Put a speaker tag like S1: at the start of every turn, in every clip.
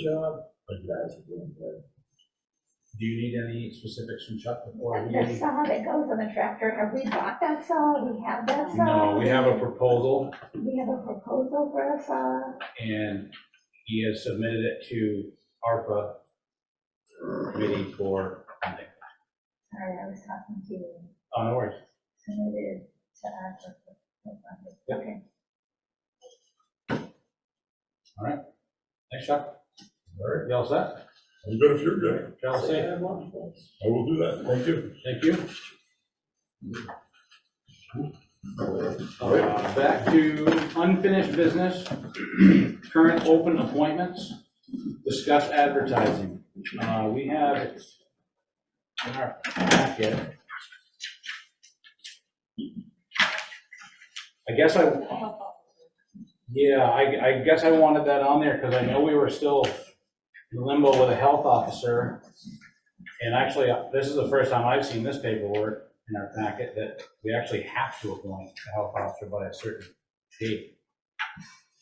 S1: job. But you guys are doing good.
S2: Do you need any specifics from Chuck before
S3: The
S2: we?
S3: saw that goes on the tractor, have we bought that saw? We have that saw?
S2: No, we have a proposal
S3: We have a proposal for a saw?
S2: and he has submitted it to ARPA committee for, funding.
S3: Sorry, I was talking to you,
S2: oh, no worries.
S3: submitted to us. for- for funding.
S2: Yeah.
S3: Okay.
S2: Thanks, Chuck. All right, y'all set?
S4: I'm good if you're good.
S2: Y'all safe?
S4: I will do that. Thank you.
S2: Thank you. Uh, Back to unfinished business, current open appointments, discuss advertising. Uh, We have in our packet. I guess I, yeah, I, I guess I wanted that on there because I know we were still in limbo with a health officer. And actually, uh, this is the first time I've seen this paperwork in our packet that we actually have to appoint a health officer by a certain date.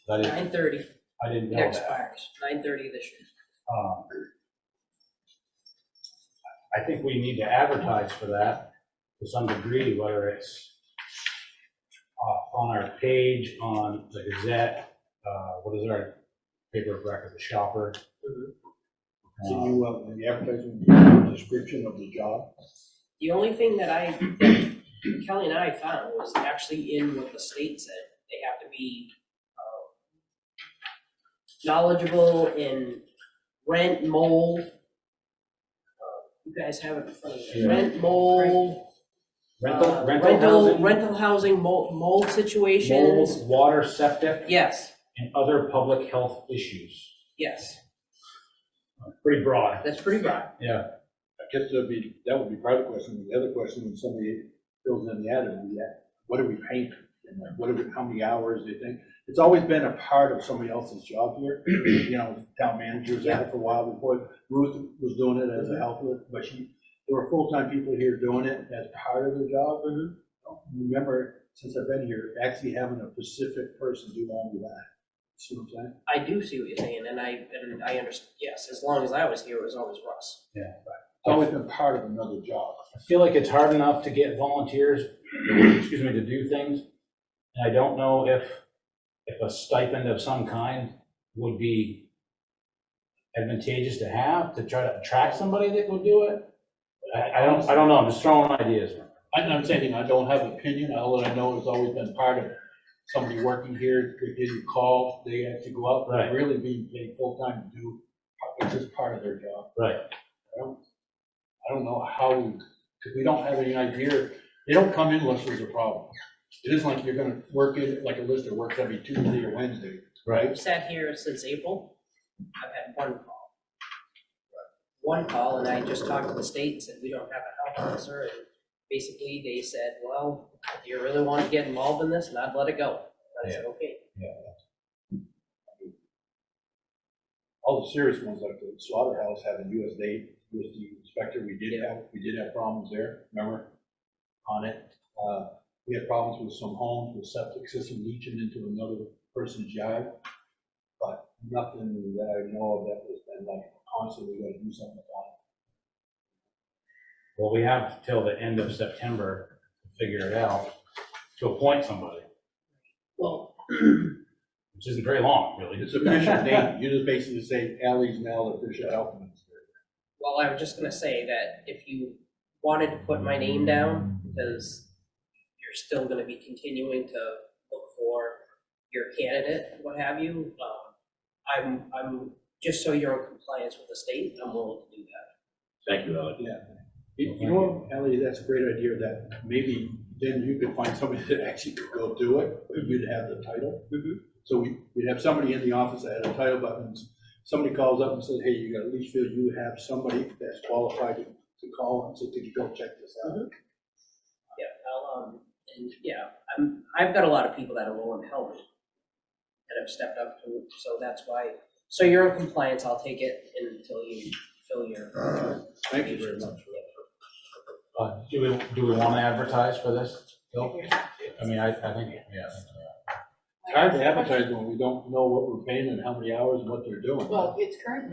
S2: That is,
S5: Nine thirty,
S2: I didn't
S5: it
S2: know that.
S5: expires, nine thirty this year.
S2: Um, I think we need to advertise for that to some degree, whether it's uh, on our page, on the Gazette, uh, what is our paper of record, the shopper.
S1: Can
S2: Um,
S1: you, uh, in the advertising, give a description of the job?
S5: The only thing that I, that Kelly and I found was actually in what the state said, they have to be, um, knowledgeable in rent, mold. Uh, You guys have it in front of you,
S2: Yeah.
S5: rent, mold.
S2: Rental,
S5: uh,
S2: rental housing.
S5: Rental housing, mold, mold situations,
S2: mold, water, septic,
S5: yes,
S2: and other public health issues.
S5: yes,
S2: Pretty broad.
S5: that's pretty broad,
S1: I guess that'd be, that would be part of the question. The other question, when somebody fills in the ad, would be, yeah, what are we paying? for? And like, what are we, how many hours they think? It's always been a part of somebody else's job here, you know, town manager was at it for a while before. Ruth was doing it as a helper, but she, there were full-time people here doing it as part of the job. Remember, since I've been here, actually having a specific person do all of that. See what I'm saying?
S5: I do see what you're saying, and I, and I understand, yes, as long as I was here, it was always Russ.
S1: It's always been part of another job.
S2: I feel like it's hard enough to get volunteers, excuse me, to do things. And I don't know if, if a stipend of some kind would be advantageous to have, to try to attract somebody that would do it. I, I don't, I don't know, I'm just throwing ideas.
S1: I'm not saying, I don't have an opinion, all that I know is always been part of somebody working here, they give you a call, they have to go out,
S2: Right.
S1: they're really being paid full-time to do, it's just part of their job.
S2: Right.
S1: I don't, I don't know how, we- cause we don't have any idea, they don't come in unless there's a problem. It isn't like you're gonna work in, like a lister works every Tuesday or Wednesday,
S5: I've sat here since April, I've had one call. One call, and I just talked to the state and said, we don't have a health officer, and basically they said, well, do you really want to get involved in this? And I'd let it go. And I said, okay.
S1: all the serious ones like the slaughterhouse having USDA, USD inspector, we did have, we did have problems there, remember? On it, uh, we had problems with some homes, with septic system leaching into another person's yard. But nothing that I know of that has been like constantly gonna do something about
S2: Well, we have till the end of September to figure it out, to appoint somebody,
S5: Well,
S2: which isn't very long, really.
S1: it. It's official name, you just basically say Ally's now the official health minister.
S5: well, I was just gonna say that if you wanted to put my name down, because you're still gonna be continuing to look for your candidate, what have you, um, I'm, I'm, just so you're in compliance with the state, I'm willing to do that.
S6: Thank you, Alex.
S1: You you know, Ellie, that's a great idea that maybe then you could find somebody that actually could go do it, but you'd have the title. So we, we'd have somebody in the office that had a title, but when somebody calls up and says, hey, you got a leach field, you have somebody that's qualified to to call and say, could you go check this out?
S5: Yeah, I'll, um, and, yeah, I'm, I've got a lot of people that are willing to help me, that have stepped up to, it, so that's why, so you're in compliance, I'll take it until you fill your.
S1: Thank you very much.
S2: Uh, Do we, do we want to advertise for this? Bill? I mean, I, I think, yeah.
S1: It's hard to advertise when we don't know what we're paying and how many hours and what they're doing.
S6: Well, it's currently